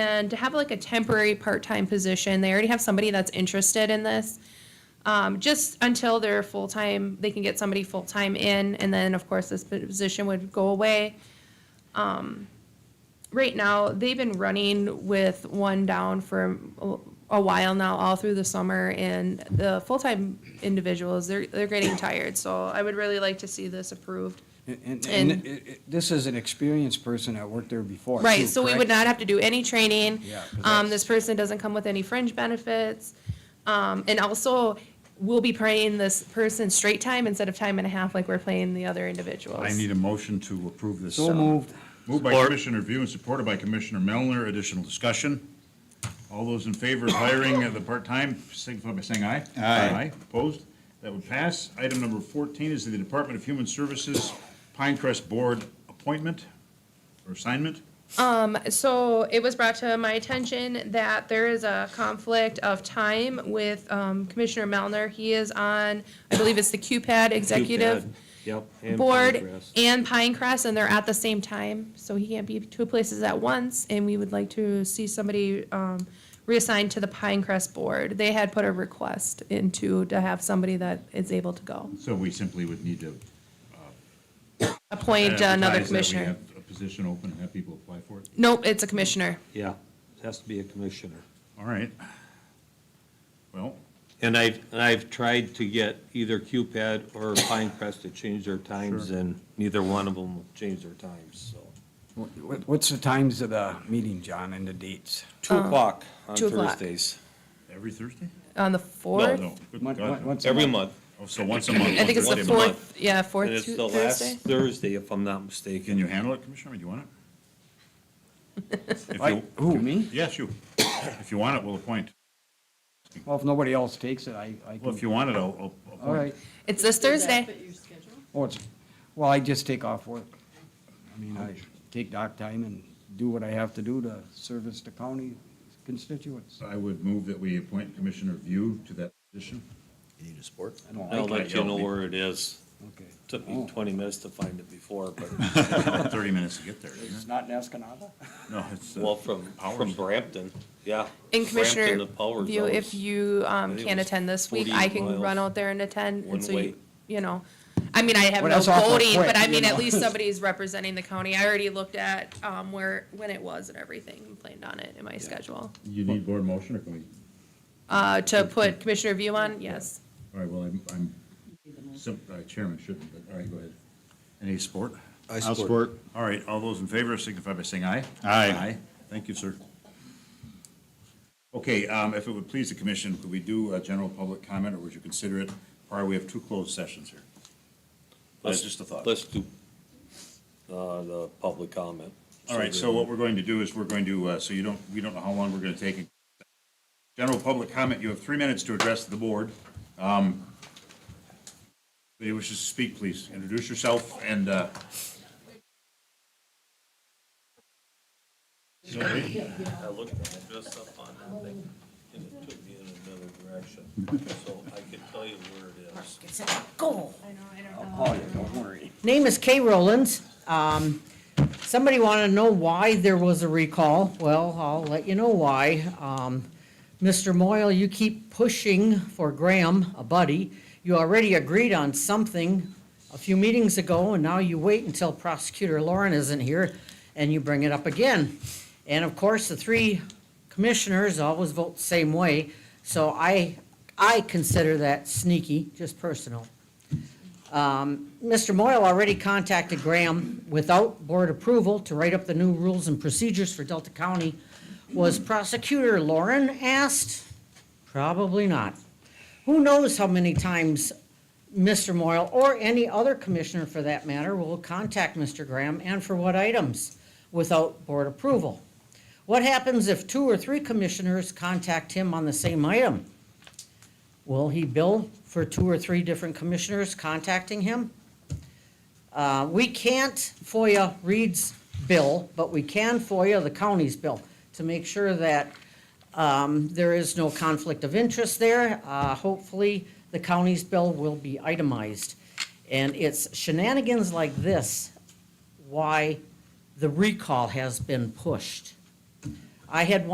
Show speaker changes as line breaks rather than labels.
And to have like a temporary part-time position, they already have somebody that's interested in this. Um, just until they're full-time, they can get somebody full-time in, and then, of course, this position would go away. Um, right now they've been running with one down for a- a while now all through the summer and the full-time individuals they're, they're getting tired so i would really like to see this approved
And- And,
And-
and it- it- this is an experienced person that worked there before.
right
too,
so we
correct?
would not have to do any training
Yeah, 'cause
um,
that's-
this person doesn't come with any fringe benefits um, and also we'll be paying this person straight time instead of time and a half like we're paying the other individuals
I need a motion to approve this.
So
uh,
moved.
Moved by Commissioner View and supported by Commissioner Melner. Additional discussion? All those in favor of hiring of the part-time, signify by saying aye.
Aye.
Opposed? That would pass. Item number 14 is the Department of Human Services Pinecrest Board appointment or assignment.
So it was brought to my attention that there is a conflict of time with um, Commissioner Melner. He is on, I believe it's the QPAD Executive
Yep. and
Board
Pinecrest.
and Pinecrest, and they're at the same time. So he can't be two places at once, and we would like to see somebody um, reassigned to the Pinecrest Board. They had put a request into to have somebody that is able to go.
So we simply would need to.
Appoint uh, another
advertise that we
commissioner.
have A position open and have people apply for it.
Nope, it's a commissioner.
Yeah, it has to be a commissioner.
All right. Well,
And I've, and I've tried to get either QPAD or Pinecrest to change their times, and neither one of them will change their times, so.
What- What's the times of the meeting, John, and the dates?
Oh, Two o'clock on
two o'clock.
Thursdays,
every Thursday?
On the
No,
fourth,
no. Good
Once-
God, no.
once a
every
month?
month.
Oh, So once a month.
I think it's
once
the
a
fourth
month.
fourth, yeah, fourth
And it's the
Tu-
last
Thursday.
Thursday, if I'm not mistaken.
Can you handle it, Commissioner? Do you want it? If
I-
you-
Who, me?
Yes, you. If you want it, we'll appoint.
Well, if nobody else takes it, I, I
Well, if
can.
you want it, I'll, I'll- I'll. appoint.
All right.
It's this
Does
Thursday.
that fit your schedule?
Well, it's, well, I just take off work. I mean, I take dock time and do what I have to do to service the county constituents.
So I would move that we appoint Commissioner View to that position.
You need a support?
I don't
I'll
like
let you know where it is.
it. Okay.
Took me
Oh.
twenty minutes to find it before, but,
About Thirty minutes to get there,
It's
isn't
not in Escanaba?
it? No, it's. uh,
well, from, from
hours.
Brampton, yeah.
And Commissioner
Brampton to Powers,
View,
that
if
was-
you um,
I think it
can't
was
attend this week,
48
I can run
miles,
out there and attend,
one
and so you,
way.
you know. I mean, I have
Well,
no
that's awful
voting,
quick,
but I
you
mean, at
know.
least somebody's representing the county. I already looked at um, where, when it was and everything, and planned on it in my schedule.
You need board motion or can we?
Uh, To put Commissioner View on, yes.
All right, well, I'm, I'm, sim- uh, Chairman shouldn't, but all right, go ahead. Any support?
I I'll support. support.
All right, all those in favor signify by saying aye. Aye. Aye. Thank you, sir. Okay, um, if it would please the commission, could we do a general public comment, or would you consider it prior? We have two closed sessions here.
Let's-
just a thought.
Let's do, uh, the public comment.
All right, so what we're going to do is we're going to, uh, so you don't, we don't know how long we're going to take. General public comment, you have three minutes to address the board. Um, Anybody wishes to speak, please introduce yourself and. uh, nobody?
I looked at it just up on that thing, and it took me in another direction, so I can tell you where it is.
Go.
Oh, yeah, don't worry.
Name is Kay Rowlands. Um, somebody wanted to know why there was a recall. Well, I'll let you know why. Um, Mr. Moyle, you keep pushing for Graham, a buddy. You already agreed on something a few meetings ago, and now you wait until prosecutor Lauren isn't here, and you bring it up again. And of course, the three commissioners always vote the same way, so I, I consider that sneaky, just personal. Mr. Moyle already contacted Graham without board approval to write up the new rules and procedures for Delta County. Was prosecutor Lauren asked? Probably not. Who knows how many times Mr. Moyle, or any other commissioner for that matter, will contact Mr. Graham and for what items without board approval? What happens if two or three commissioners contact him on the same item? Will he bill for two or three different commissioners contacting him? Uh, We can't FOIA Reed's bill, but we can FOIA the county's bill to make sure that um, there is no conflict of interest there. Uh, Hopefully, the county's bill will be itemized. And it's shenanigans like this why the recall has been pushed. I had